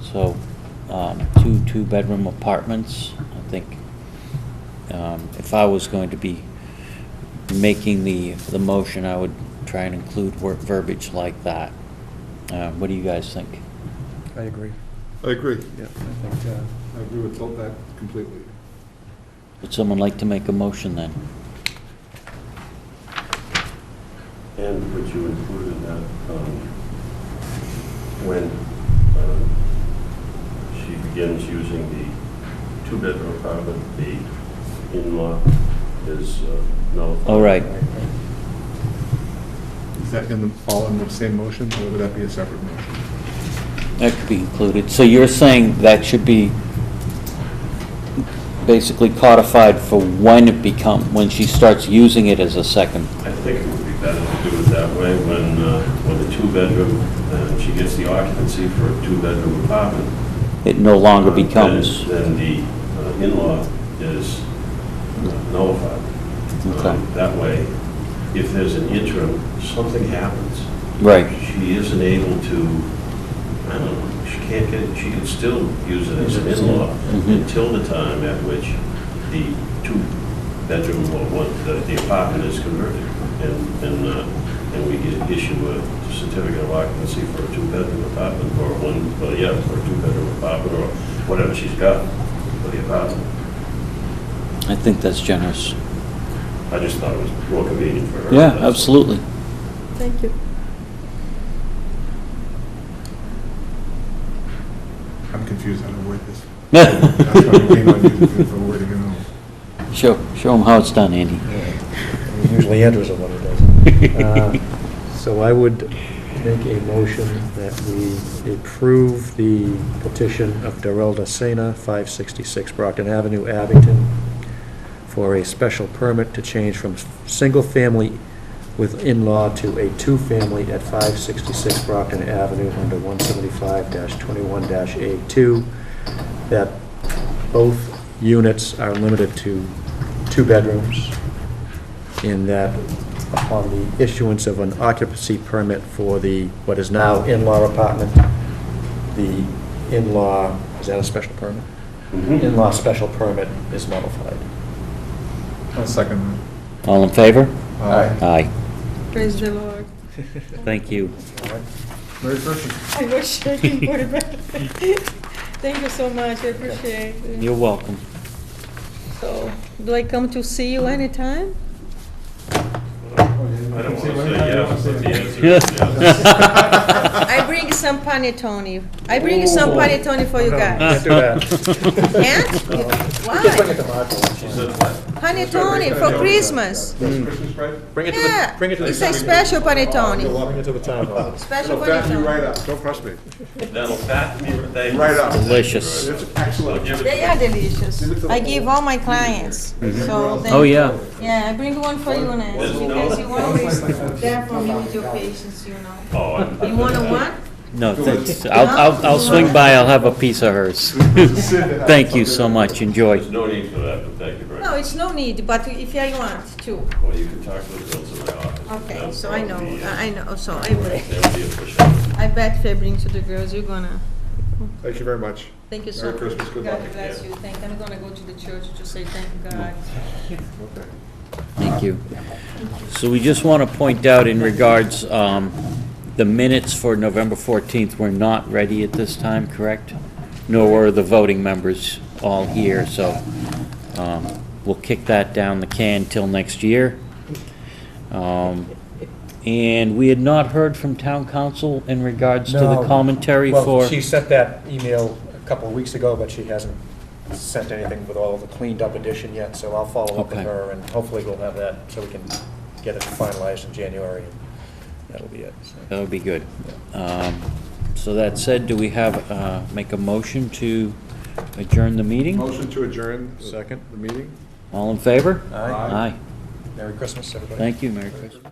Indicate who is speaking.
Speaker 1: So, um, two two-bedroom apartments, I think, um, if I was going to be making the, the motion, I would try and include wor- verbiage like that. Uh, What do you guys think?
Speaker 2: I agree.
Speaker 3: I agree.
Speaker 2: Yeah, I think, uh,
Speaker 3: I agree with all that completely.
Speaker 1: Would someone like to make a motion then?
Speaker 4: And would you include in that, um, when uh, she begins using the two-bedroom apartment, the in-law is uh, nullified?
Speaker 1: All right,
Speaker 3: Is that in the, all in the same motion, or would that be a separate motion?
Speaker 1: that could be included. So you're saying that should be basically codified for when it become, when she starts using it as a second
Speaker 4: I think it would be better to do it that way, when, uh, when the two-bedroom, uh, she gets the occupancy for a two-bedroom apartment.
Speaker 1: it no longer
Speaker 4: uh, then-
Speaker 1: becomes.
Speaker 4: Then the uh, in-law is nullified.
Speaker 1: Okay.
Speaker 4: Um, That way, if there's an interim, something happens.
Speaker 1: Right,
Speaker 4: She isn't able to, I don't know, she can't get, she can still use it as an in-law
Speaker 1: Mhm.
Speaker 4: until the time at which the two-bedroom or one, the the apartment is converted. And, and, uh, and we get- issue a certificate of occupancy for a two-bedroom apartment or one, well, yeah, for a two-bedroom apartment or whatever she's got for the apartment.
Speaker 1: I think that's generous.
Speaker 4: I just thought it was more convenient for her.
Speaker 1: Yeah,
Speaker 4: That's-
Speaker 1: absolutely.
Speaker 5: Thank you.
Speaker 3: I'm confused on the word this. That's why we came up
Speaker 1: Show,
Speaker 3: with the wording and all.
Speaker 1: show them how it's done, Andy.
Speaker 2: yeah. Usually Andrew's the one who does. Uh, So I would make a motion that we approve the petition of Darrell Da Sena, 566 Brockton Avenue, Abington, for a special permit to change from s- single-family with in-law to a two-family at 566 Brockton Avenue under 175-21-A2, that both units are limited to two bedrooms, in that upon the issuance of an occupancy permit for the, what is now in-law apartment, the in-law, is that a special permit?
Speaker 4: Mhm.
Speaker 2: In-law special permit is nullified.
Speaker 3: I'll second that. Uh,
Speaker 1: All in favor?
Speaker 3: Aye.
Speaker 1: Aye.
Speaker 5: Praise the Lord.
Speaker 1: Thank you.
Speaker 3: Merry Christmas.
Speaker 5: I wish I could put it back. Thank you so much, I appreciate it.
Speaker 1: You're welcome.
Speaker 5: So, do I come to see you anytime?
Speaker 4: I don't want to say yes, but the answer is yes.
Speaker 5: I
Speaker 1: I
Speaker 5: bring some panettone. I bring some panettone for you guys.
Speaker 2: Can't do that.
Speaker 5: And, why?
Speaker 4: She said what?
Speaker 5: Panettone for Christmas.
Speaker 3: Christmas bread?
Speaker 2: Bring it to the,
Speaker 5: Yeah,
Speaker 2: bring it to
Speaker 5: it's a
Speaker 2: the, Oh,
Speaker 5: special panettone,
Speaker 2: bring it to the town hall.
Speaker 5: special
Speaker 3: It'll fatten you right
Speaker 5: panettone.
Speaker 3: up, don't trust me.
Speaker 4: That'll fatten me right
Speaker 3: Right up.
Speaker 1: Delicious.
Speaker 3: It's
Speaker 4: I'll
Speaker 3: excellent.
Speaker 4: give
Speaker 5: They
Speaker 4: it,
Speaker 5: are delicious. I give all my clients, so.
Speaker 1: Oh, yeah.
Speaker 5: Yeah, I bring one for you, Nancy,
Speaker 4: There's no-
Speaker 5: because you want to be there for me with your patients, you know.
Speaker 4: oh, I'm-
Speaker 5: You want to what?
Speaker 1: No, thanks. I'll, I'll, I'll swing by, I'll have a piece of hers. Thank you so much, enjoy.
Speaker 4: there's no need for that, but thank you very
Speaker 5: No,
Speaker 4: much.
Speaker 5: it's no need, but if I want to.
Speaker 4: Well, you can talk to the girls in my office.
Speaker 5: Okay,
Speaker 4: That's
Speaker 5: so I know,
Speaker 4: probably, uh,
Speaker 5: I know, so I bet,
Speaker 4: They'll be official.
Speaker 5: I bet if I bring to the girls, you're gonna,
Speaker 3: Thank you very much.
Speaker 5: thank you so
Speaker 3: Merry
Speaker 5: much.
Speaker 3: Christmas, good luck.
Speaker 5: God bless you, thank, I'm gonna go to the church to say thank God.
Speaker 3: Okay.
Speaker 1: Thank you. So we just want to point out in regards, um, the minutes for November 14th were not ready at this time, correct? Nor were the voting members all here, so um, we'll kick that down the can till next year. Um, And we had not heard from town council in regards to the
Speaker 2: No.
Speaker 1: commentary
Speaker 2: Well,
Speaker 1: for...
Speaker 2: She sent that email a couple of weeks ago, but she hasn't sent anything with all the cleaned up edition yet, so I'll follow up with
Speaker 1: Okay.
Speaker 2: her, and hopefully we'll have that, so we can get it finalized in January, and that'll be it. so.
Speaker 1: That would be good. Um, So that said, do we have, uh, make a motion to adjourn the meeting?
Speaker 3: Motion to adjourn. the-
Speaker 2: Second.
Speaker 3: The meeting?
Speaker 1: All in favor?
Speaker 2: Aye.
Speaker 1: Aye.
Speaker 2: Merry Christmas, everybody.
Speaker 1: Thank you, Merry Christmas.